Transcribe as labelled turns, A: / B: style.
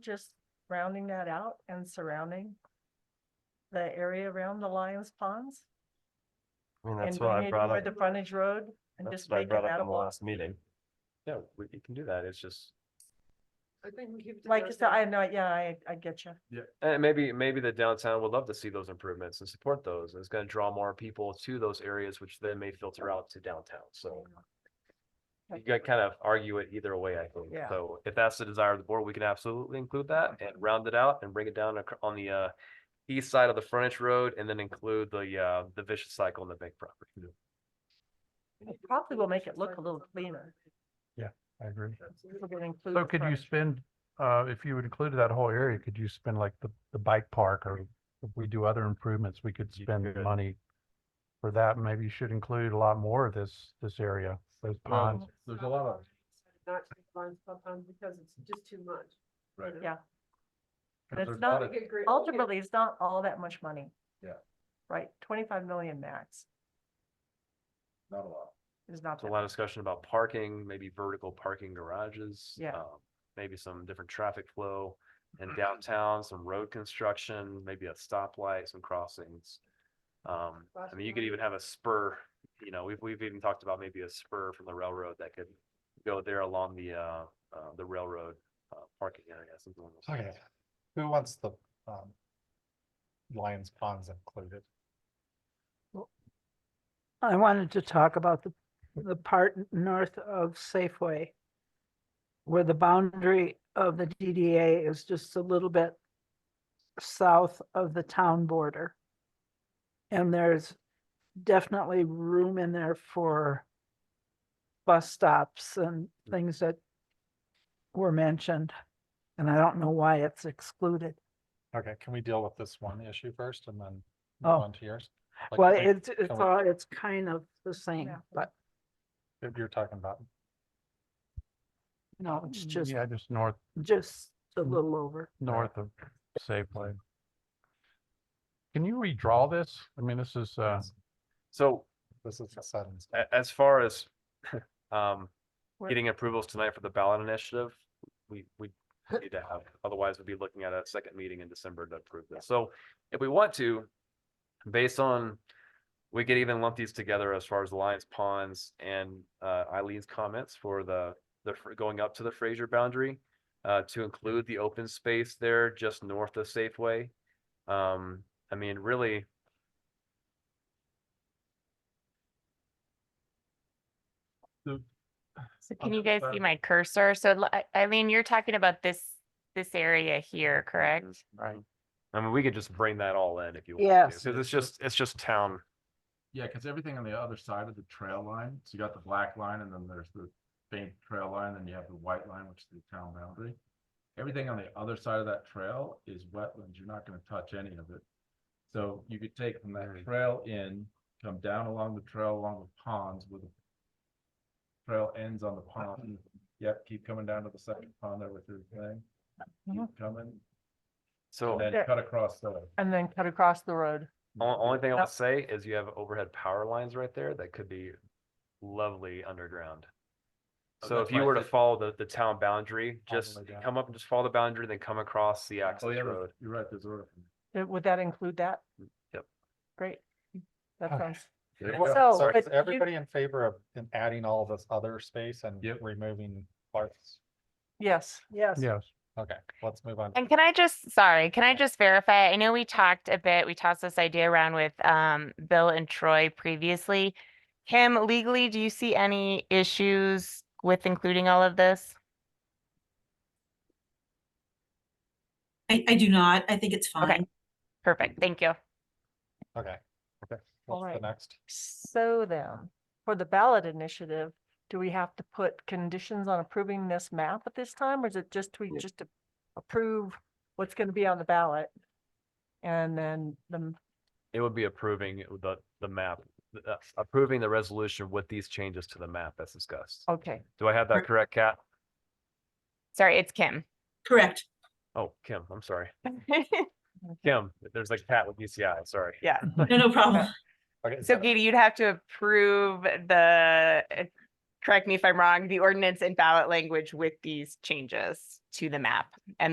A: just rounding that out and surrounding the area around the Lions Ponds?
B: I mean,
A: and
B: that's what I
A: doing it
B: brought
A: for
B: up.
A: The frontage road and
B: That's
A: just
B: what I
A: making
B: brought
A: that
B: up
A: a
B: in the
A: walk.
B: last meeting. Yeah, we you can do that. It's just,
C: I think we keep.
A: Like, so I know, yeah, I, I get you.
B: and maybe, maybe the downtown would love to see those improvements and support those. and It's gonna draw more people to those areas, which then may filter out to downtown, so. You
A: Okay.
B: gotta kind of argue it either way, I think.
A: Yeah.
B: So if that's the desire of the board, we can absolutely include that and round it out and bring it down ac- on the uh. East side of the frontage road and then include the uh, the vicious cycle and the big property.
A: It Probably will make it look a little cleaner.
D: I agree.
A: if we're gonna include
D: So
A: the
D: could you
A: front.
D: spend, uh, if you included that whole area, could you spend like the, the bike park or if we do other improvements, we could
B: You
D: spend
B: could.
D: money for that. Maybe you should include a lot more of this, this area, those
A: Um,
D: ponds.
C: There's a lot of. Not to fund sometimes because it's just too much. Right.
A: Yeah. But it's not, ultimately, it's not all that much money.
E: Yeah.
A: Right, twenty-five million max
E: Not a lot.
A: is not.
B: There's a
A: that
B: lot of
A: much.
B: discussion about parking, maybe vertical parking garages.
A: Yeah.
B: um, Maybe some different traffic flow in downtown, some road construction, maybe a stoplight, some crossings. Um, I mean, you could even have a spur, you know, we've, we've even talked about maybe a spur from the railroad that could go there along the, uh, uh, the railroad, uh, parking area, something along those
E: Okay,
B: lines.
E: who wants the, um, Lions Ponds included?
F: I wanted to talk about the, the part north of Safeway. Where the boundary of the DDA is just a little bit south of the town border. And there's definitely room in there for bus stops and things that were mentioned. And I don't know why it's excluded.
E: Okay, can we deal with this one issue first and then move
F: Oh.
E: on to yours? Like,
F: Well,
E: I think
F: it's, it's
E: can we-
F: all, it's kind of the same,
A: Yeah.
F: but
E: if You're talking about,
F: no, it's just,
D: Yeah, just north,
F: just a little over.
D: north of Safeway. Can you redraw this? I mean, this is, uh,
B: So
E: this is the sudden stuff.
B: a- as far as, um,
A: What-
B: getting approvals tonight for the ballot initiative, we, we need to have, otherwise we'd be looking at a second meeting in December to approve this. So if we want to, based on, we could even lump these together as far as Lions Ponds and uh, Eileen's comments for the, the, fr- going up to the Fraser boundary, uh, to include the open space there just north of Safeway. Um, I mean, really,
G: So
E: I'll
G: can you
E: just
G: guys see my cursor? So l- I- Eileen, you're talking about this, this area here, correct?
B: Right. I mean, we could just bring that all in if you want.
F: Yes.
B: Because it's just, it's just town.
H: Yeah, because everything on the other side of the trail line, so you got the black line and then there's the faint trail line, then you have the white line, which is the town boundary. Everything on the other side of that trail is wetlands. You're not gonna touch any of it. So you could take from that
B: Mm.
H: trail in, come down along the trail along the ponds with the trail ends on the pond. Yep, keep coming down to the second pond there with your thing. Keep coming
B: So.
H: and then
A: There-
H: cut across there.
A: And then cut across the road.
B: Only, only thing I
A: Yep.
B: would say is you have overhead power lines right there that could be lovely underground.
H: Oh,
B: So
H: that's
B: if you
H: why I
B: were to
H: said-
B: follow the, the town boundary,
E: the
B: just
E: way down.
B: come up and just follow the boundary, then come across the access
H: Oh, yeah,
B: road.
H: you're right, there's a road.
A: Uh, Would that include that?
B: Yep.
A: Great. That
E: Okay.
A: sounds,
H: There you
E: Well,
H: go.
F: So,
E: So
F: but
E: is
F: you-
E: everybody in favor of in adding all this other space and
H: Yep.
E: removing parts?
A: yes.
F: Yes.
D: yes.
E: Okay, let's move on. to-
G: And can I just, sorry, can I just verify? I know we talked a bit, we tossed this idea around with um Bill and Troy previously. Kim, legally, do you see any issues with including all of this?
I: I, I do not. I think it's
G: Okay.
I: fine.
G: Perfect, thank you.
E: Okay, okay,
A: All
E: what's
A: right.
E: the next?
A: So then, for the ballot initiative, do we have to put conditions on approving this map at this time, or is it just we just to approve what's gonna be on the ballot? And then the, m-
B: It would be approving the, the map, uh, approving the resolution with these changes to the map as discussed.
A: okay,
B: Do I have that
I: Right.
B: correct, Kat?
G: Sorry, it's Kim.
I: Correct.
B: Oh, Kim, I'm sorry. Kim, there's like Kat with UCI, sorry.
G: Yeah.
I: No, no problem.
E: Okay, is
G: So
E: that-
G: Katie, you'd have to approve the, uh, correct me if I'm wrong, the ordinance and ballot language with these changes to the map and